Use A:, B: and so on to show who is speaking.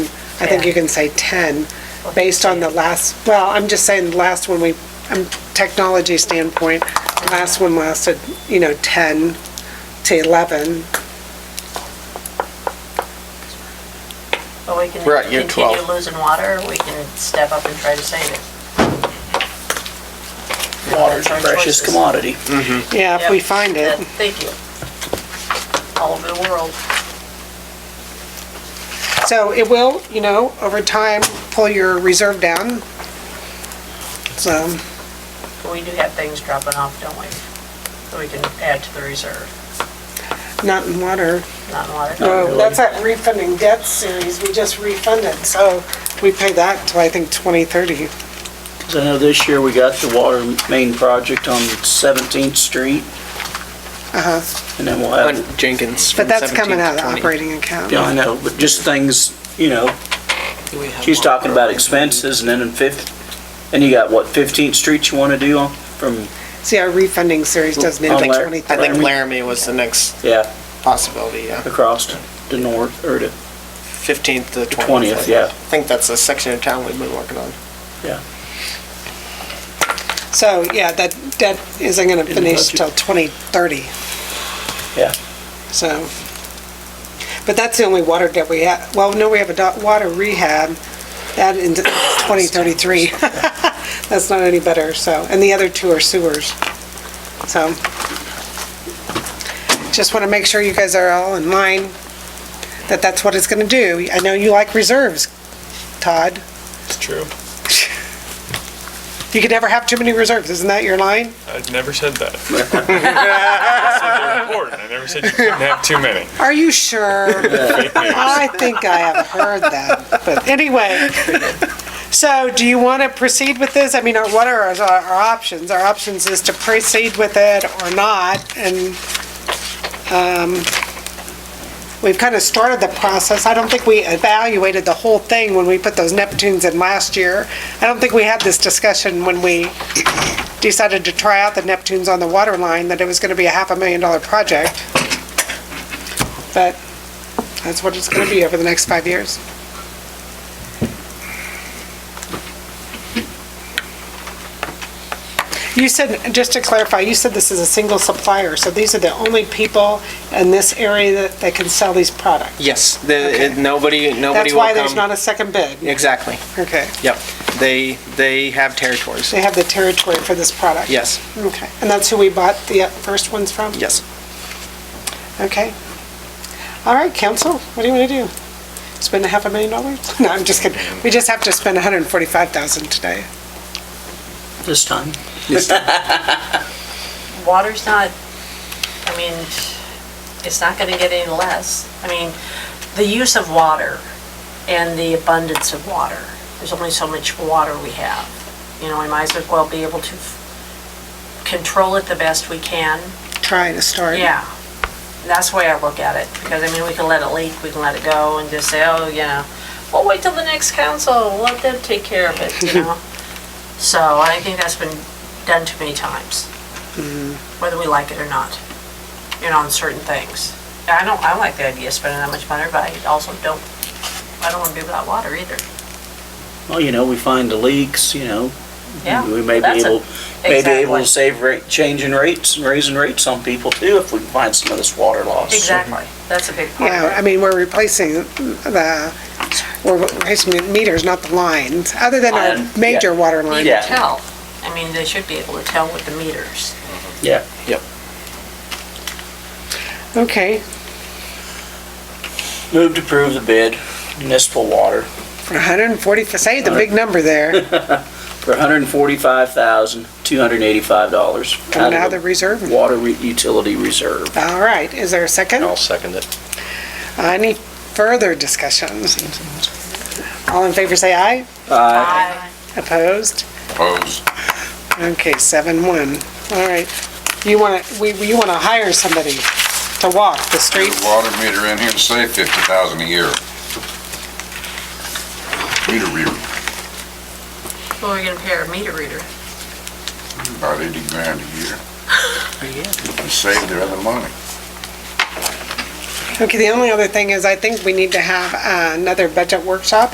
A: I think you can say 10, based on the last, well, I'm just saying the last one we, um, technology standpoint, the last one lasted, you know, 10 to 11.
B: But we can
C: We're at year 12.
B: continue losing water, or we can step up and try to save it.
D: Water's a
B: Our
D: precious
B: choices.
D: commodity.
A: Yeah, if we
B: Yep.
A: find
B: Yeah,
A: it.
B: Thank you. All over the world.
A: So it will, you know, over time, pull your reserve down. So,
B: But we do have things dropping off, don't we? That we can add to the reserve,
A: not in water.
B: not in water.
A: No, that's that refunding debt series, we just refunded, so we pay that till I think 2030.
D: 'Cause I know this year we got the water main project on 17th Street,
A: Uh-huh,
D: and then we'll have,
C: On Jenkins.
A: but
C: from
A: that's coming
C: 17
A: out
C: to
A: of
C: 20.
A: operating account.
D: yeah, I know, but just things, you know, she's talking about expenses, and then in fifth, and you got, what, 15th Street you want to do on, from,
A: See, our refunding series doesn't end
D: Oh,
A: till
D: Larry-
C: I
A: 2030.
C: think Laramie was the next
D: yeah,
C: possibility, yeah.
D: across to the north, or to,
C: 15th to 20th.
D: 20th, yeah.
C: I think that's a section of town we've been working on.
A: So, yeah, that debt isn't gonna
D: the
A: finish
D: budget.
A: till 2030.
D: Yeah.
A: So, but that's the only water debt we have, well, no, we have a do- water rehab, that in 2033. That's not any better, so, and the other two are sewers. So, just wanna make sure you guys are all in line, that that's what it's gonna do. I know you like reserves, Todd.
E: It's true.
A: You can never have too many reserves, isn't that your line?
E: I never said that. I said they're important. I never said you couldn't have too many.
A: Are you sure? I think I have heard that, but anyway. So do you want to proceed with this? I mean, our- what are our our options? Our options is to proceed with it or not, and um, we've kind of started the process. I don't think we evaluated the whole thing when we put those Neptunes in last year. I don't think we had this discussion when we decided to try out the Neptunes on the water line, that it was going to be a half a million dollar project. But that's what it's going to be over the next five years. You said, just to clarify, you said this is a single supplier, so these are the only people in this area that, that can sell these products?
C: Yes, the, it- nobody, nobody
A: That's
C: will
A: why there's
C: come.
A: not a second bid?
C: Exactly,
A: Okay.
C: yep. They, they have territories.
A: They have the territory for this product?
C: Yes,
A: Okay. And that's who we bought the uh, first ones from?
C: yes.
A: Okay. All right, council, what do you want to do? Spend a half a million dollars? No, I'm just kidding. We just have to spend 145,000 today.
D: this time.
B: Water's not, I mean, it's not gonna get any less. I mean, the use of water and the abundance of water, there's only so much water we have. You know, we might as well be able to f- control it the best we can.
A: Try to start.
B: Yeah, that's the way I look at it, because I mean, we can let it leak, we can let it go and just say, oh, you know, we'll wait till the next council, let them take care of it, you know? So I think that's been done too many times, whether we like it or not, you know, on certain things. And I don't, I like the idea of spending that much money, but I also don't, I don't wanna be without water either.
D: Well, you know, we find the leaks, you know,
B: Yeah,
D: we may be
B: that's a-
D: able, may be able
B: exactly.
D: to save rate, changing rates and raising rates on people too, if we can find some of this water loss.
B: Exactly, that's a big part of
A: Yeah,
B: it.
A: I mean, we're replacing the, we're replacing the meters, not the lines, other than
D: Line,
A: our
D: Um, yeah.
A: major water
B: You
A: line.
D: Yeah.
B: can tell, I mean, they should be able to tell with the meters.
D: Yeah.
A: Okay,
D: Move to approve the bid, municipal water,
A: for 140, say the big number there,
D: for $145,285.
A: coming out
D: of
A: of the reserve.
D: Water re- utility reserve.
A: All right, is there a second?
C: second it.
A: Any further discussion? All in favor, say aye.
D: Aye.
B: Aye.
A: Opposed? Opposed. Okay, seven one. All right. You want to, we, you want to hire somebody to walk the
F: Get
A: streets?
F: a water meter in here and save fifty thousand a year. Meter reader,
B: Who are we gonna pay our meter reader?
F: about eighty grand a year. And save their other money.
A: Okay, the only other thing is I think we need to have uh, another budget workshop